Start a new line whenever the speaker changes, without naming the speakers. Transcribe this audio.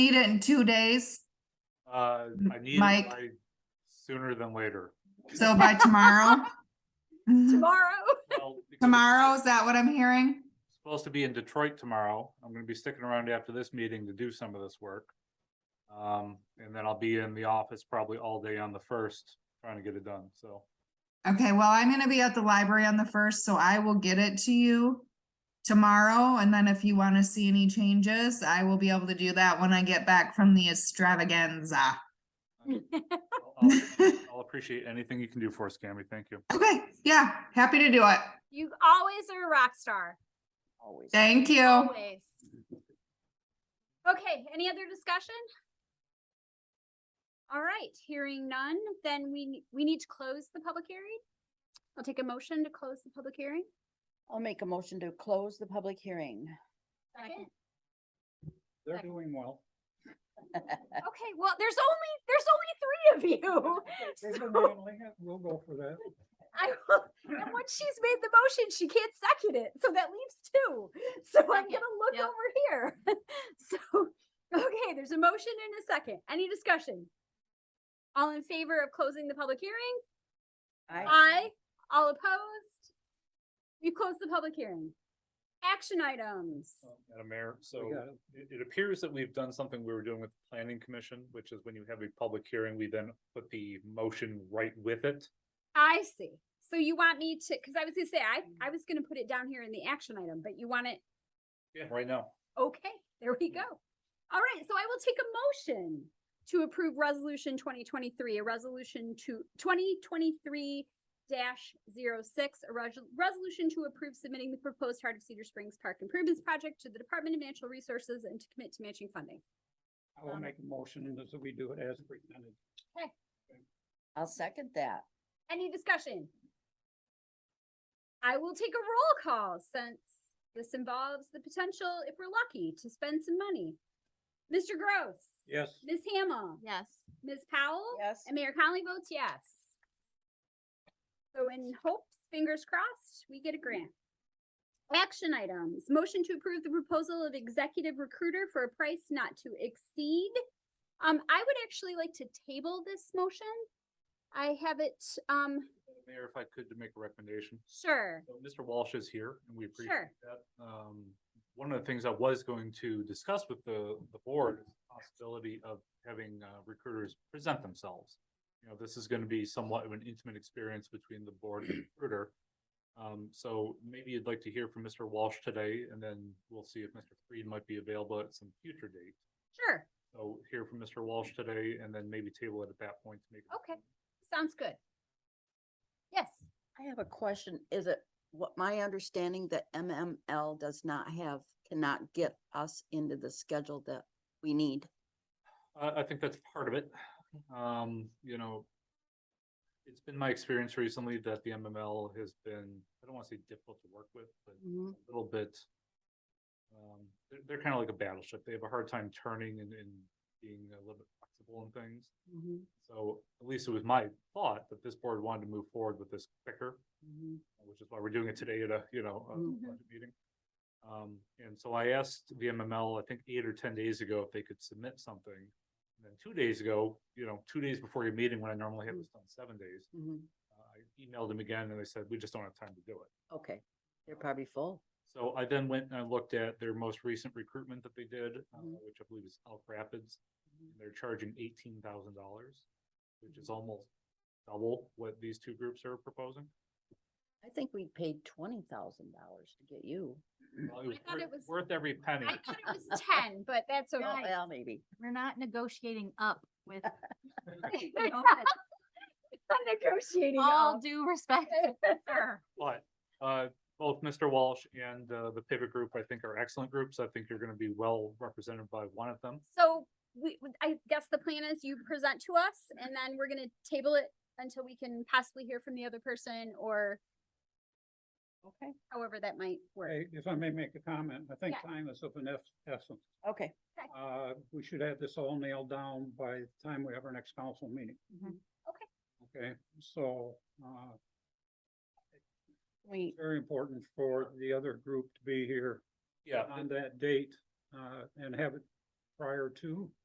Need it in two days,
Uh, I need it
Mike?
by sooner than later.
so by tomorrow?
tomorrow.
Well, because it's
Tomorrow, is that what I'm hearing?
Supposed to be in Detroit tomorrow. I'm gonna be sticking around after this meeting to do some of this work. Um, and then I'll be in the office probably all day on the first, trying to get it done, so.
Okay, well, I'm gonna be at the library on the first, so I will get it to you tomorrow, and then if you wanna see any changes, I will be able to do that when I get back from the extravaganza.
I'll- I'll- I'll appreciate anything you can do for us, Cammy. Thank you.
Okay, yeah, happy to do it.
You always are a rock star.
Always.
Thank you.
Always. Okay, any other discussion? All right, hearing none, then we, ne- we need to close the public hearing. I'll take a motion to close the public hearing.
I'll make a motion to close the public hearing.
Second.
They're doing well.
Okay, well, there's only, there's only three of you. So
We'll go for that.
I, will- and once she's made the motion, she can't second it, so that leaves two. So I'm
Second,
gonna look
yep.
over here. So, okay, there's a motion and a second. Any discussion? All in favor of closing the public hearing? Aye. All opposed? We've closed the public hearing. Action items.
Madam Mayor, so it, it appears that we've done something we were doing with the planning commission, which is when you have a public hearing, we then put the motion right with it.
I see. So you want me to, because I was gonna say, I, I was gonna put it down here in the action item, but you want it,
Yeah. Right now.
okay, there we go. All right, so I will take a motion to approve resolution twenty twenty-three, a resolution to twenty twenty-three dash zero six, a res- resolution to approve submitting the proposed Heart of Cedar Springs Park Improvements Project to the Department of Natural Resources and to commit to matching funding.
I will make a motion that we do it as presented.
I'll second that.
Any discussion? I will take a roll call since this involves the potential, if we're lucky, to spend some money. Mr. Gross,
Yes,
Ms. Hamel,
Yes.
Ms. Powell,
Yes.
and Mayor Conley votes yes. So in hopes, fingers crossed, we get a grant. Action items, motion to approve the proposal of executive recruiter for a price not to exceed. Um, I would actually like to table this motion. I have it, um,
Madam Mayor, if I could to make a recommendation.
sure,
So Mr. Walsh is here and we appreciate
Sure.
that. Um, one of the things I was going to discuss with the, the board is the possibility of having uh, recruiters present themselves. You know, this is gonna be somewhat of an intimate experience between the board and the recruiter. Um, so maybe you'd like to hear from Mr. Walsh today and then we'll see if Mr. Freed might be available at some future date.
sure,
So hear from Mr. Walsh today and then maybe table it at that point to make. a
okay, sounds good. Yes,
I have a question. Is it what my understanding that MML does not have, cannot get us into the schedule that we need?
I, I think that's part of it. Um, you know, it's been my experience recently that the MML has been, I don't want to say difficult to work with, but
Mhm.
a little bit. Um, they're, they're kind of like a battleship. They have a hard time turning and, and being a little bit flexible in things.
Mhm,
So at least it was my thought that this board wanted to move forward with this quicker
mhm.
which is why we're doing it today at a, you know, a
Mm-hmm.
Mhm.
budget meeting. Um, and so I asked the MML, I think eight or ten days ago, if they could submit something. And then two days ago, you know, two days before your meeting, when I normally have this done seven days,
Mhm.
uh, I emailed them again and they said, we just don't have time to do it.
Okay, they're probably full.
So I then went and I looked at their most recent recruitment that they did, uh,
Mm-hmm.
Mhm.
which I believe is Elk Rapids. and They're charging eighteen thousand dollars, which
Mm-hmm.
is almost double what these two groups are proposing.
I think we paid twenty thousand dollars to get you.
Well, it was
thought it
worth-
was-
Worth every penny.
I thought it was ten, but that's
Oh,
okay.
Well, maybe.
We're not negotiating up with you know,
Negotiating.
Oh.
all due respect. sir.
But uh, both Mr. Walsh and uh, the pivot group, I think are excellent groups. I think you're gonna be well represented by one of them.
So we, we- I guess the plan is you present to us and then we're gonna table it until we can possibly hear from the other person or
Okay,
however that might work.
Hey, if I may make a comment, I think
Yes.
time is of an es- essence.
okay.
Uh, we should have this all nailed down by the time we have our next council meeting.
Mhm.
Okay.
Okay, so, uh,
We,
very important for the other group to be here
Yeah,
on that date, uh, and have it prior to.